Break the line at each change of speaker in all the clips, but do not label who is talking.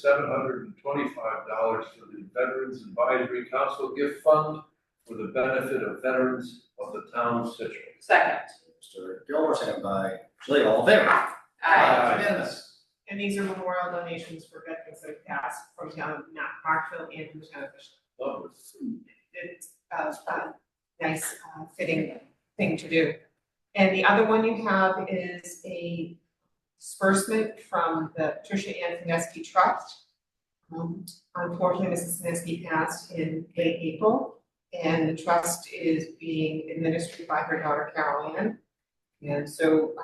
seven hundred and twenty-five dollars for the Veterans Advisory Council Gift Fund for the benefit of veterans of the town of Citrus.
Second.
Mr. Gilmore, second by Julie, all in favor?
Aye.
It's Unanimous.
And these are memorial donations for veterans that have passed from town of Mount Parkville and from town of Fishkill.
Lovely.
It's a, a nice uh, fitting thing to do. And the other one you have is a disbursement from the Tricia Ann Fineski Trust. Um, unfortunately, Mrs. Fineski passed in late April, and the trust is being administered by her daughter Carol Ann. And so,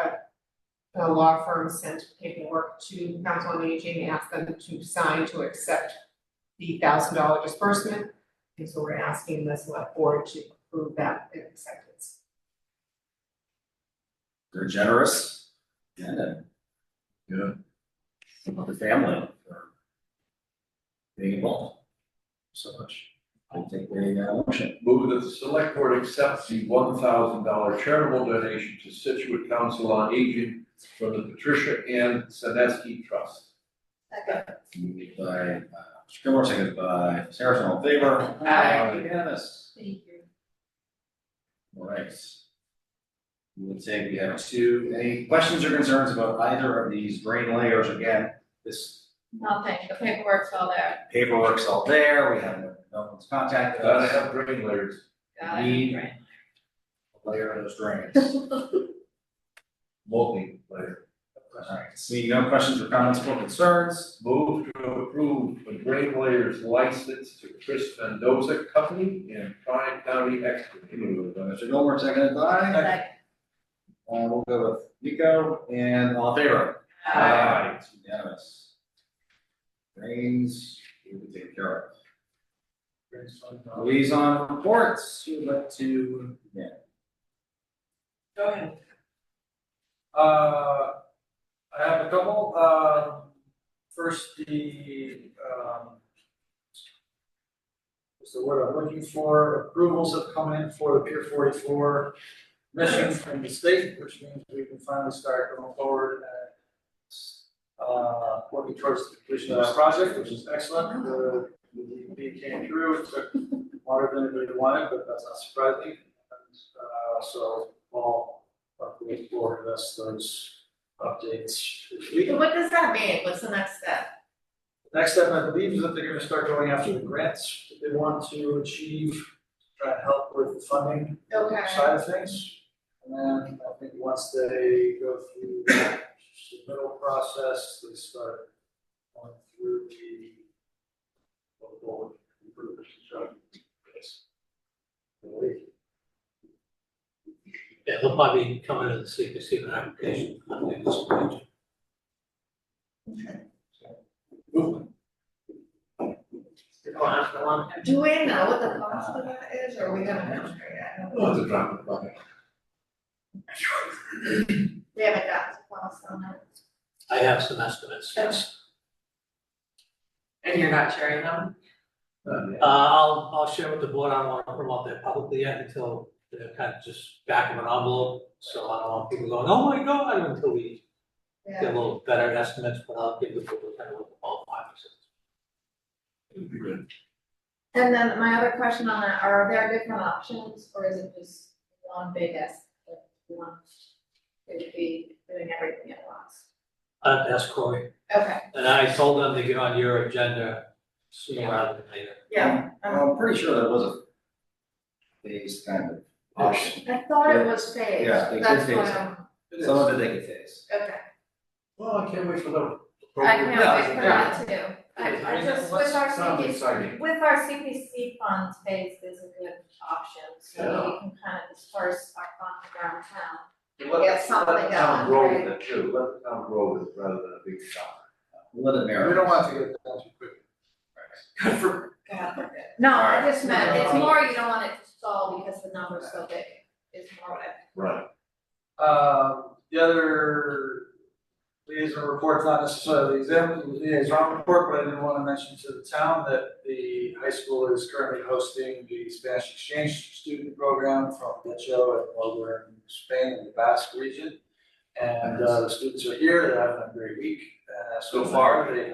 uh, the law firm sent paperwork to council on aging, and asked them to sign to accept the thousand dollar disbursement. And so we're asking the select board to approve that acceptance.
They're generous. And then. Yeah. The family for being involved. So much. I think uh, we got a motion.
Move that the select board accepts the one thousand dollar charitable donation to Situate Council on Aging from the Patricia Ann Sineski Trust.
Second.
Moved by uh, Mr. Gilmore, seconded by Sarah, all in favor?
Aye.
Unanimous.
Thank you.
All right. We would say we have two, any questions or concerns about either of these green layers? Again, this
Nothing, the paperwork's all there.
paperwork's all there, we have, no no one's contacted
Gotta
us.
have drain layers.
Got it.
Need-
Right.
layer of those drains.
multi layer.
Alright, seeing no questions or comments or concerns,
Move to approve a drain layers license to Chris Mendoza Company and Tryon County Excavating.
Mr. Gilmore, seconded by, uh,
Second.
we'll go with Nico, and all in favor?
Aye.
It's unanimous. Drains, we will take care of. Liaison reports, who would like to, yeah,
Go ahead.
Uh, I have a couple, um, first the, um. What's the word I'm looking for, approvals have come in for the Pier forty-four mission from the state, which means we can finally start going forward and. Uh, working towards the completion of that project, which is excellent, the, the DEP came through, it took longer than anybody wanted, but that's not surprising. And, uh, so, all Hopefully for us those updates. this week.
So what does that mean? What's the next step?
Next step, I believe, is that they're gonna start going after the grants that they want to achieve, try and help with the funding
Okay.
side of things. And then I think once they go through the middle process, they start going through the local improvement projects. I believe.
Yeah, they'll probably come in and see if they see an application. I think this point.
Do we know what the cost of that is, or are we gonna measure it? I don't know.
Oh, it's a drop in the bucket.
We haven't got the cost on that.
I have some estimates, yes.
And you're not sharing them?
Not
Uh,
yet.
I'll, I'll share with the board, I don't want to put them out there publicly yet until they're kind of just back of an envelope. So I don't want people going, oh my God, until we get a
Yeah.
little better estimates, but I'll give the board kind of a ballpark.
It'd be good.
And then my other question on that, are there different options, or is it just one big S? like, one? It would be doing everything at once.
I'll have to ask Corey,
Okay,
and I told them to get on your agenda sooner rather than later.
yeah, uh-huh.
well, I'm pretty sure that was a phased kind of
Oh,
option,
I thought it was phased,
Yeah, they did
that's why
phase it.
I'm,
some of it they could phase.
okay.
Well, I can't wait for the.
I can't wait for
Yeah.
that too. I, I
Yeah.
just, with our
Sounds
CPC,
exciting.
with our CPC funds phase is a good option, so we
Yeah.
can kind of disperse our funds around town.
Let-
Get something
Let the town
done,
grow
right?
with it too, let the town grow with it rather than a big shop.
Let it marinate.
We don't want to get down too quick.
Good for.
God forbid. No, I
Alright.
just meant, it's more you don't want it to stall because the number's so big, is more what I.
Right.
Um, the other liaison report's not necessarily the exam, liaison report, but I did wanna mention to the town that the high school is currently hosting the Spanish exchange student program from Decho and over in Spain in the Basque region. And, uh, the students are here, they're having a great week, uh, so far, they